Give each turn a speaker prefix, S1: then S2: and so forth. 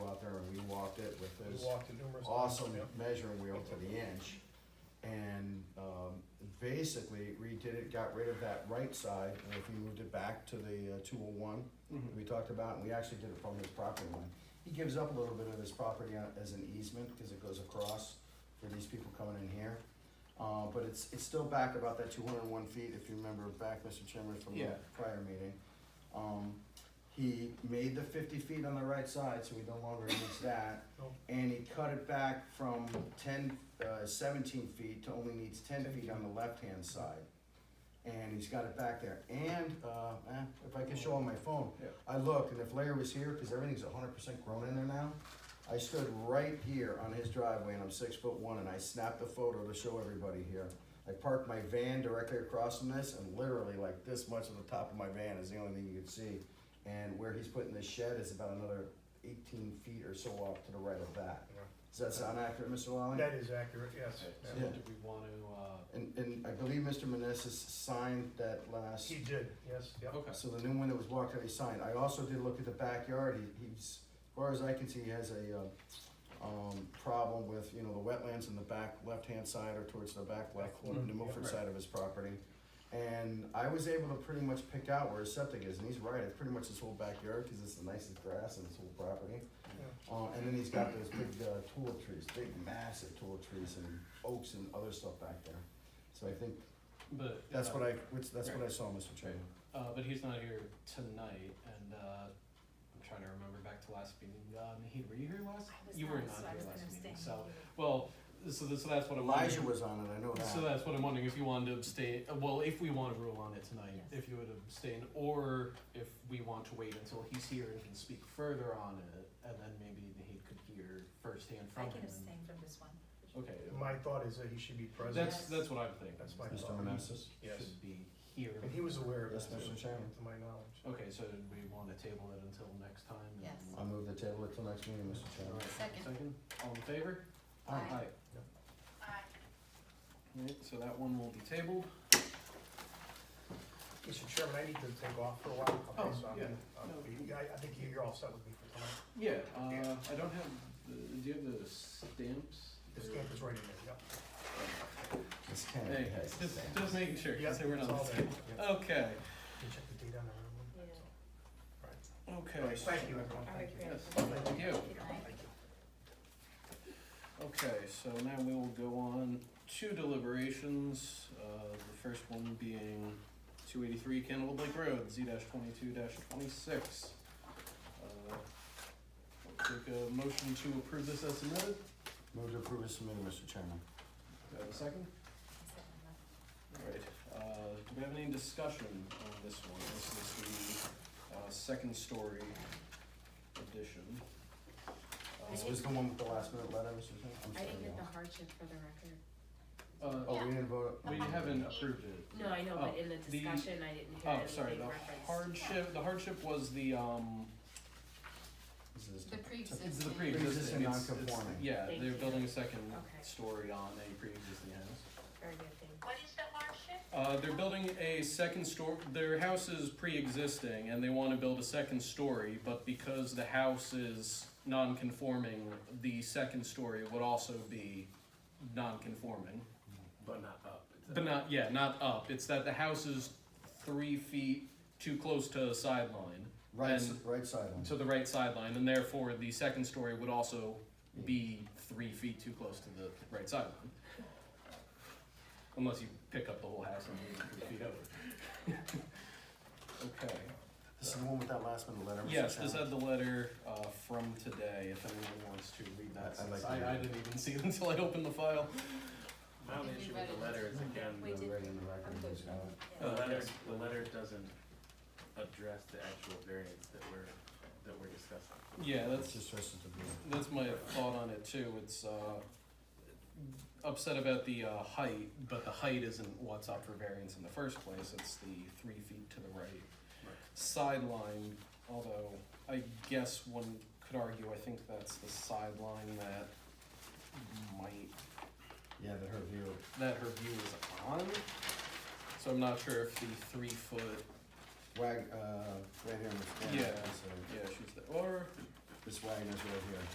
S1: walked it numerous times.
S2: awesome
S1: Yep.
S2: measuring wheel to the inch. And um, basically redid it, got rid of that right side, and if we moved it back to the two oh one,
S1: Mhm.
S2: we talked about, and we actually did it from his property line. He gives up a little bit of his property on- as an easement, because it goes across for these people coming in here. Uh, But it's, it's still back about that two hundred and one feet, if you remember back, Mr. Chairman, from the
S1: Yeah.
S2: prior meeting. Um, He made the fifty feet on the right side, so we no longer needs that
S1: Nope.
S2: and he cut it back from ten, uh, seventeen feet to only needs ten feet on the left-hand side. And he's got it back there, and, uh, eh, if I can show on my phone,
S1: Yeah.
S2: I looked, and if Larry was here, cause everything's hundred percent grown in there now, I stood right here on his driveway, and I'm six foot one, and I snapped a photo to show everybody here. I parked my van directly across from this, and literally like this much of the top of my van is the only thing you could see. And where he's putting the shed is about another eighteen feet or so off to the right of that. Does that sound accurate, Mr. Lally?
S1: That is accurate, yes.
S3: So
S2: Yeah.
S3: do we want to, uh,
S2: And, and I believe Mr. Meneses signed that last,
S1: He did, yes, yep.
S3: uh, okay,
S2: so the new one that was walked out, he signed. I also did look at the backyard, he, he's, as far as I can see, he has a, uh, um, problem with, you know, the wetlands in the back left-hand side or towards the back left,
S1: Mhm.
S2: the Milford
S1: Yeah.
S2: side of his property. And I was able to pretty much pick out where his septic is, and he's right, it's pretty much his whole backyard, cause it's the nicest grass in his whole property.
S1: Yeah.
S2: Uh, and then he's got those big uh, tulip trees, big massive tulip trees and oaks and other stuff back there. So I think
S3: but.
S2: that's
S3: uh,
S2: what I, which, that's what I saw, Mr. Chairman.
S3: Uh, but he's not here tonight, and, uh, I'm trying to remember back to last meeting, uh, Naheed, were you here last?
S4: I was
S3: You were not
S4: not, so I
S3: here
S4: was
S3: last
S4: gonna
S3: meeting,
S4: abstain.
S3: so- Well, so, th- so that's what I'm wondering.
S2: Elijah was on it, I know
S3: So
S2: that.
S3: that's what I'm wondering, if you wanted to abstain, uh, well, if we want to rule on it tonight,
S4: Yes.
S3: if you would abstain, or if we want to wait until he's here and can speak further on it, and then maybe Naheed could hear firsthand
S4: I
S3: from him.
S4: can abstain from this one.
S3: Okay.
S1: My thought is that he should be present.
S3: That's,
S4: Yes.
S3: that's what I'm thinking.
S1: That's my
S3: is that
S2: thought.
S3: Onassis
S1: Yes.
S3: Should be here.
S1: And he was aware of
S2: Yes,
S1: this,
S2: Mr. Chairman.
S1: to my knowledge.
S3: Okay, so did we want to table it until next time? and-
S4: Yes.
S2: I'll move the table until next meeting, Mr.
S3: All
S2: Chairman.
S3: right,
S4: Second.
S3: Second, all in favor?
S4: Aye.
S1: Yep.
S3: All right, so that one will be tabled.
S1: Mr. Chairman, I need to take off for a while. Okay,
S3: Oh,
S1: so I'm
S3: yeah.
S1: gonna- I'll
S3: No.
S1: be- I, I think you- you're all set with me for tonight.
S3: Yeah, uh, I don't have, the do you have the stamps?
S1: The stamp is right in there, yep.
S2: This can
S3: Hey, just, just making sure,
S1: Yep,
S3: because they were
S1: it's
S3: not.
S1: all there. Yep.
S3: Okay,
S1: You check the date on the other one.
S4: Yeah.
S1: That's all.
S3: okay.
S1: Thank you, everyone,
S4: All
S1: thank
S4: right,
S1: you.
S4: great.
S3: Yes, thank you.
S4: Good night.
S1: Thank you.
S3: Okay, so now we will go on to deliberations, uh, the first one being two eighty-three Candlewood Lake Road, Z twenty-two twenty-six. Uh, Take a motion to approve this as submitted,
S2: Move to approve as submitted, Mr. Chairman.
S3: do I have a second? Alright, uh, do we have any discussion on this one? This is the, uh, second story edition.
S4: I
S2: This
S3: Uh,
S4: didn't-
S2: was the one with the last minute letter, Mr. Chairman? I'm
S4: I didn't
S2: sorry,
S4: get the
S2: y'all.
S4: hardship for the record.
S3: Uh,
S2: Oh, we didn't vote?
S3: we haven't approved it.
S4: No, I know,
S3: Oh,
S4: but in the
S3: the-
S4: discussion, I didn't hear
S3: Oh, sorry,
S4: anything
S3: the
S4: referenced.
S3: hardship, the hardship was the, um,
S2: This is
S3: it's
S5: The
S3: the
S5: pre-existing.
S3: pre-existing,
S2: Pre-existing
S3: it's, it's,
S2: non-conforming.
S3: yeah,
S4: Thank
S3: they're
S4: you.
S3: building a second
S4: Okay.
S3: story on a pre-existing house.
S4: Very good, thank you.
S5: What is the hardship?
S3: Uh, they're building a second store, their house is pre-existing and they wanna build a second story, but because the house is non-conforming, the second story would also be non-conforming.
S6: But not up.
S3: But not, yeah, not up, it's that the house is three feet too close to sideline.
S2: Right, s-
S3: and-
S2: right sideline.
S3: to the right sideline, and therefore the second story would also be three feet too close to the right sideline. Unless you pick up the whole house and move it three feet over. Okay,
S2: This is the one with that last minute letter, Mr. Chairman?
S3: yes, this had the letter, uh, from today, if anyone wants to read that,
S2: I- I'd like
S3: since
S2: to
S3: I,
S2: read
S3: I
S2: it.
S3: didn't even see it until I opened the file.
S6: My only issue with the letter is again,
S4: We did-
S2: Right in the record,
S4: I'm good.
S2: Mr. Chairman.
S3: Uh,
S6: the letter,
S3: yes.
S6: the letter doesn't address the actual variance that we're, that we're discussing.
S3: Yeah,
S2: That's
S3: that's,
S2: just us at the beginning.
S3: that's my thought on it too, it's, uh, upset about the, uh, height, but the height isn't what's up for variance in the first place, it's the three feet to the right. sideline, although I guess one could argue, I think that's the sideline that might,
S2: Yeah, the her view.
S3: that her view is on. So I'm not sure if the three foot,
S2: Wag, uh, right here, Miss Wagner.
S3: Yeah.
S2: So
S3: yeah, she's the, or,
S2: Miss Wagner's right here.